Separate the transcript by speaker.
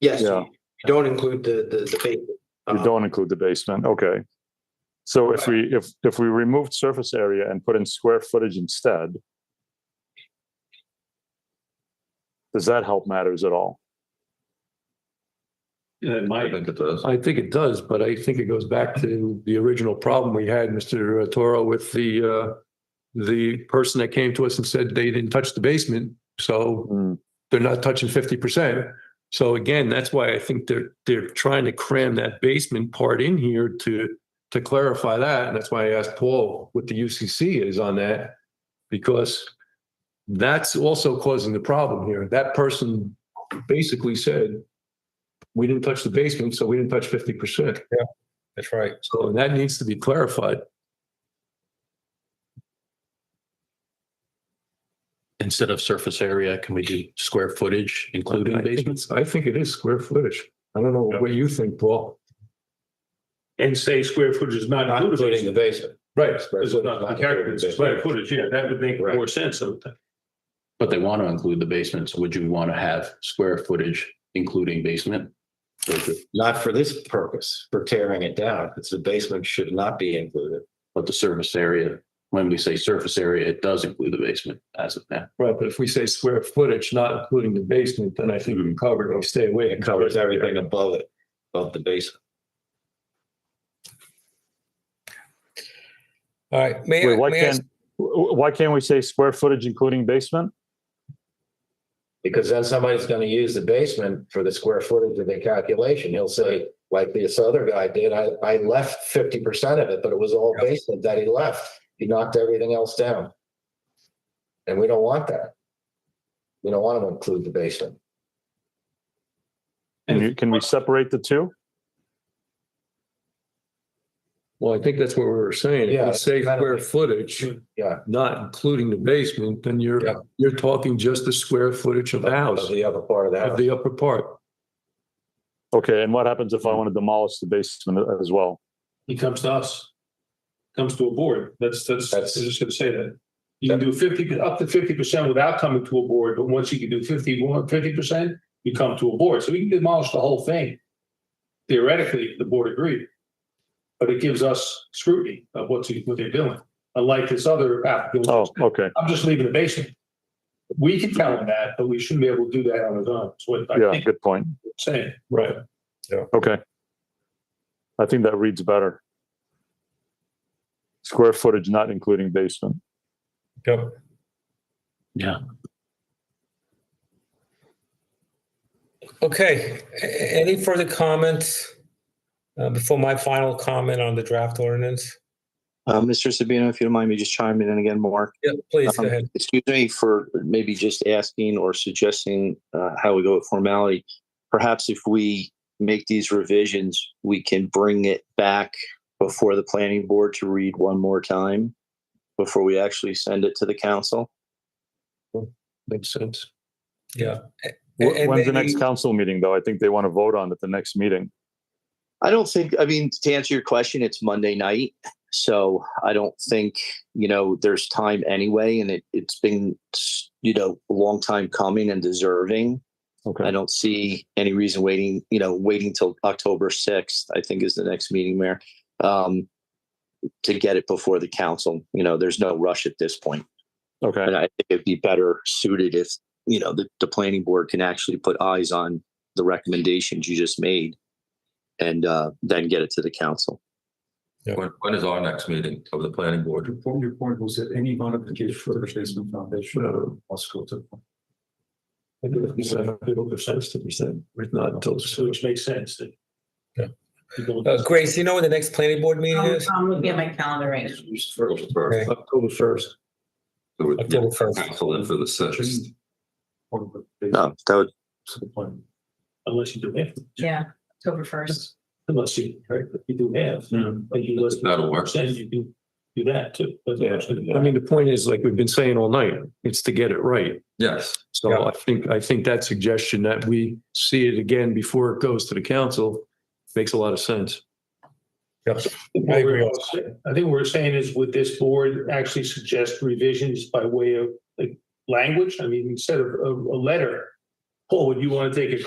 Speaker 1: Yes,
Speaker 2: Yeah.
Speaker 1: you don't include the, the, the basement.
Speaker 2: You
Speaker 3: Uh-huh.
Speaker 1: Uh,
Speaker 2: don't include the basement, okay. So if we, if, if we removed surface area and put in square footage instead, does that help matters at all?
Speaker 4: It
Speaker 5: I
Speaker 4: might.
Speaker 5: think it does.
Speaker 4: I think it does, but I think it goes back to the original problem we had, Mr. Toro, with the, uh, the person that came to us and said they didn't touch the basement, so
Speaker 2: Hmm,
Speaker 4: they're not touching fifty percent. So again, that's why I think they're, they're trying to cram that basement part in here to, to clarify that. And that's why I asked Paul what the UCC is on that. Because that's also causing the problem here. That person basically said, we didn't touch the basement, so we didn't touch fifty percent.
Speaker 6: That's right.
Speaker 4: So that needs to be clarified.
Speaker 6: Instead of surface area, can we do square footage
Speaker 4: I
Speaker 6: including
Speaker 4: think
Speaker 6: basements?
Speaker 4: it's- I think it is square footage. I don't know what you think, Paul.
Speaker 7: and say square footage is not
Speaker 1: Not including the
Speaker 7: included.
Speaker 1: basement.
Speaker 4: Right.
Speaker 7: Because it's not the character, it's square footage, yeah, that would make more sense of that.
Speaker 6: But they want to include the basements. Would you want to have square footage including basement?
Speaker 1: Not for this purpose, for tearing it down. It's the basement should not be included.
Speaker 6: But the surface area, when we say surface area, it does include the basement as of now.
Speaker 4: Right, but if we say square footage, not including the basement, then I think we covered, it. we stay away.
Speaker 1: It covers everything above it, above the basement.
Speaker 6: All right.
Speaker 3: May I,
Speaker 2: Wait, why
Speaker 3: may I
Speaker 2: can't, wh- why can't we say square footage including basement?
Speaker 1: Because then somebody's gonna use the basement for the square footage of their calculation. He'll say, like this other guy did, I, I left fifty percent of it, but it was all basement that he left. He knocked everything else down. And we don't want that. We don't want to include the basement.
Speaker 2: Can you, can we separate the two?
Speaker 4: Well, I think that's what we were saying. If
Speaker 1: Yeah,
Speaker 4: we say
Speaker 1: kind of
Speaker 4: square
Speaker 1: like-
Speaker 4: footage,
Speaker 1: Yeah,
Speaker 4: not including the basement, then
Speaker 1: Yeah.
Speaker 4: you're, you're talking just the square footage of the
Speaker 1: of
Speaker 4: house,
Speaker 1: the other part of the
Speaker 4: of
Speaker 1: house.
Speaker 4: the upper part.
Speaker 2: Okay, and what happens
Speaker 3: Hmm.
Speaker 2: if I want to demolish the basement as well?
Speaker 7: He comes to us. Comes to a board, that's, that's, I
Speaker 1: That's-
Speaker 7: was just gonna say that. You can do fifty, up to fifty percent without coming to a board, but once you can do fifty, percent, you come to a board, so we can demolish the whole thing. Theoretically, if the board agreed. But it gives us scrutiny of what's, what they're doing, unlike this other applicant.
Speaker 2: Oh, okay,
Speaker 7: I'm just leaving the basement. We can tell him that, but we shouldn't be able to do that on his own. That's what I
Speaker 2: yeah,
Speaker 7: think
Speaker 2: good point.
Speaker 7: you're saying.
Speaker 4: Right.
Speaker 2: Okay. I think that reads better. Square footage not including basement.
Speaker 6: Yeah.
Speaker 3: okay, A- a- any further comments uh, before my final comment on the draft ordinance?
Speaker 8: Uh, Mr. Sabino, if you don't mind me just chiming in again, Mark.
Speaker 3: Yeah, please, go
Speaker 8: Um,
Speaker 3: ahead.
Speaker 8: Excuse me for maybe just asking or suggesting uh, how we go with formality. Perhaps if we make these revisions, we can bring it back before the planning board to read one more time before we actually send it to the council.
Speaker 4: Makes sense.
Speaker 3: Yeah. A-
Speaker 2: Wh-
Speaker 3: and
Speaker 2: When's the
Speaker 3: maybe-
Speaker 2: next council meeting, though? I think they want to vote on at the next meeting.
Speaker 8: I don't think, I mean, to answer your question, it's Monday night. So I don't think, you know, there's time anyway. And it, it's been, you know, a long time coming and deserving. I
Speaker 2: Okay,
Speaker 8: don't see any reason waiting, you know, waiting till October sixth, I think is the next meeting, Mayor. Um, to get it before the council, you know, there's no rush at this point.
Speaker 2: okay.
Speaker 8: And I think it'd be better suited if, you know, the, the planning board can actually put eyes on the recommendations you just made. And, uh, then get it to the council.
Speaker 5: When, when is our next meeting of the planning board?
Speaker 4: I think it's a little bit sense to be said, but not until
Speaker 7: So which makes sense that.
Speaker 3: Yeah.
Speaker 7: People-
Speaker 3: Uh, Grace, you know when the next planning board meeting
Speaker 9: I'm
Speaker 3: is?
Speaker 9: I'm looking at my calendar right now.
Speaker 5: First, first.
Speaker 4: October first.
Speaker 5: So we-
Speaker 3: October first.
Speaker 5: Council in for the sixth.
Speaker 8: No, that would,
Speaker 7: Unless you do half,
Speaker 9: Yeah, October first.
Speaker 7: unless you, right, if you do half, but you listen.
Speaker 5: Hmm. That'll work.
Speaker 7: Then you do, do that too. That's what
Speaker 4: Yeah,
Speaker 7: I'm saying.
Speaker 4: I mean, the point is, like we've been saying all night, it's to get it right.
Speaker 5: Yes,
Speaker 4: So I think, I think that suggestion that we see it again before it goes to the council makes a lot of sense.
Speaker 3: I agree
Speaker 7: What we're- I think what we're saying is would this board actually suggest revisions by way of like language? I mean, instead of a, a letter, Paul, would you want to take a